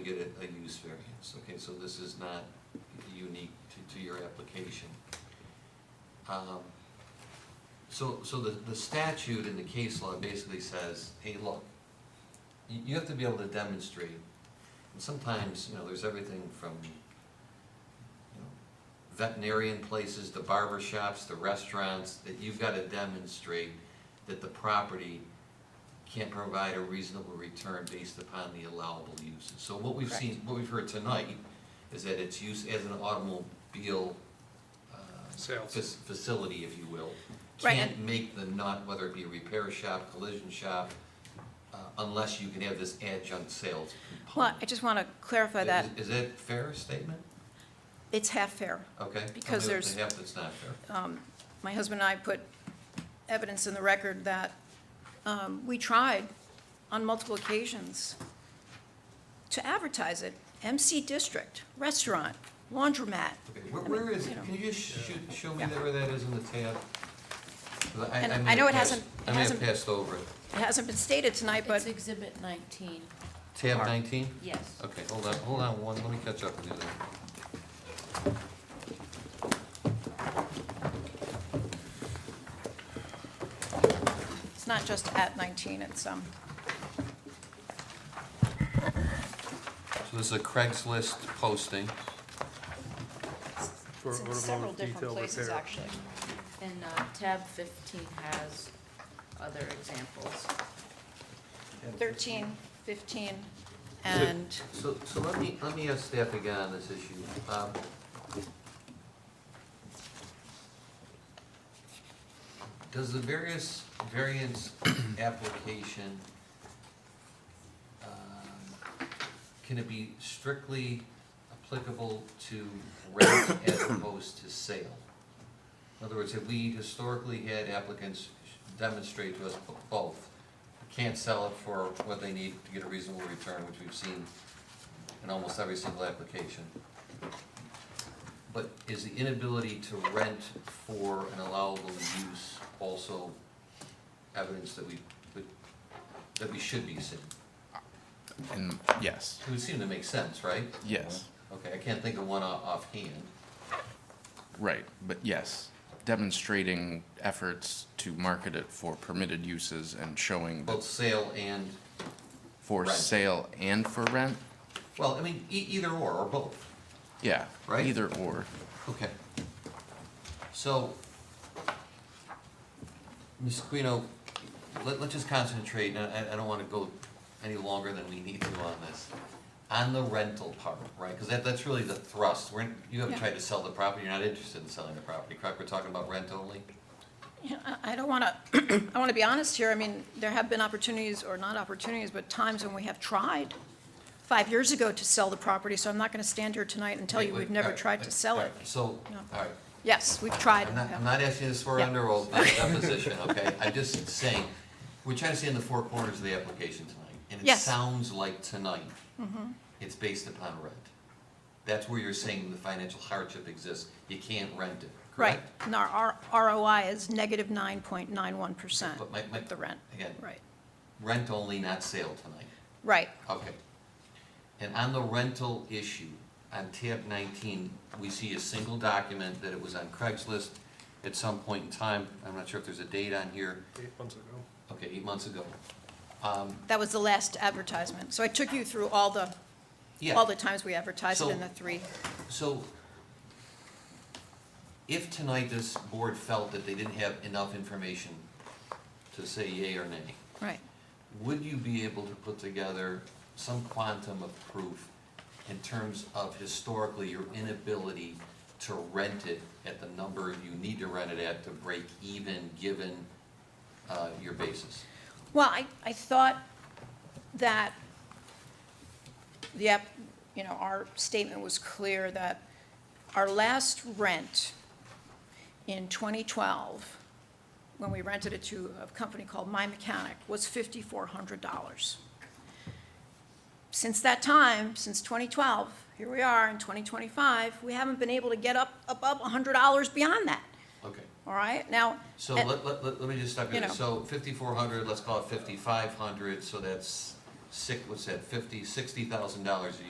get a, a use variance, okay, so this is not unique to, to your application. Um, So, so the, the statute in the case law basically says, hey, look, you, you have to be able to demonstrate, and sometimes, you know, there's everything from, you know, veterinarian places, the barber shops, the restaurants, that you've gotta demonstrate that the property can't provide a reasonable return based upon the allowable uses. So what we've Correct. seen, what we've heard tonight is that it's used as an automobile, uh, Sales. fac- facility, if you will. Right, Can't and- make the nut, whether it be a repair shop, collision shop, uh, unless you can have this adjunct sales Well, component. I just want to clarify that Is- Is that fair statement? it's half fair. Okay. tell me Because the- there's- The half that's not fair. Um, My husband and I put evidence in the record that um, we tried on multiple occasions to advertise it, MC District, restaurant, laundromat. Okay, where, where is, you it? know. can you just shoot, show me Yeah. that where that is in the tab? 'Cause And may I know have it passed- hasn't- I may have hasn't- passed over it. It hasn't been stated tonight, but It's exhibit nineteen, Tab nineteen? yes. Okay, hold on, hold on one, let me catch up with you there. it's not just at 19, it's, um, So this is a Craigslist posting. For it's in several automotive different detail places, repair. actually. And uh, tab fifteen has other examples. 13, 15, and, So, so let me, let me ask staff again on this issue. Um, Does the various variance application, um, can it be strictly applicable to rent as opposed to sale? In other words, have we historically had applicants demonstrate to us both? Can't sell it for what they need to get a reasonable return, which we've seen in almost every single application. But is the inability to rent for an allowable use also evidence that we, would- that we should be seeing? And yes, It would seem to make sense, right? Yes. Okay, I can't think of one off- offhand. right, but yes, demonstrating efforts to market it for permitted uses and showing Both that sale and, for rent. sale and for rent, well, I mean, e- either or, or both. yeah, Right. either or. Okay. So, Ms. Quino, let, let's just concentrate, and I, I don't wanna go any longer than we need to on this. On the rental part, right, because that, that's really the thrust, we're, you haven't Yeah. tried to sell the property, you're not interested in selling the property, correct? We're talking about rent only? Yeah, I I don't want to, I want to be honest here. I mean, there have been opportunities, or not opportunities, but times when we have tried five years ago to sell the property, so I'm not going to stand here tonight and tell you Wait, uh, wait, we've never alright, tried to sell it. alright, So, No. alright, Yes, we've tried. I'm not, I'm not asking you to swear Yeah. under oath by deposition, okay? I'm just saying, we're trying to stay in the four corners of the application tonight. And it Yes. Mm-hmm. sounds like tonight, it's based upon rent. That's where you're saying the financial hardship exists. You can't rent it, Right, correct? and our our ROI is negative 9.91% But my- my- with the rent. Again, Right, rent only, not sale tonight. right. Okay. And on the rental issue, on tab nineteen, we see a single document that it was on Craigslist at some point in time. I'm not sure if there's a date on here. Eight months ago. Okay, eight months ago. Um, That was the last advertisement. So I took you through all the, Yeah, all the times we advertised it So- in the three. so if tonight this board felt that they didn't have enough information to say yea or nay, Right, would you be able to put together some quantum of proof in terms of historically your inability to rent it at the number you need to rent it at to break even, given uh, your basis? Well, I, I thought that the, app- you know, our statement was clear that our last rent in 2012, when we rented it to a company called My Mechanic, was $5,400. Since that time, since 2012, here we are in 2025, we haven't been able to get up above $100 beyond that, Okay. all right? Now. So and- let, let, let let me just stop you You there. know. So fifty-four hundred, let's call it fifty-five hundred, so that's six, what's that, fifty, sixty thousand dollars a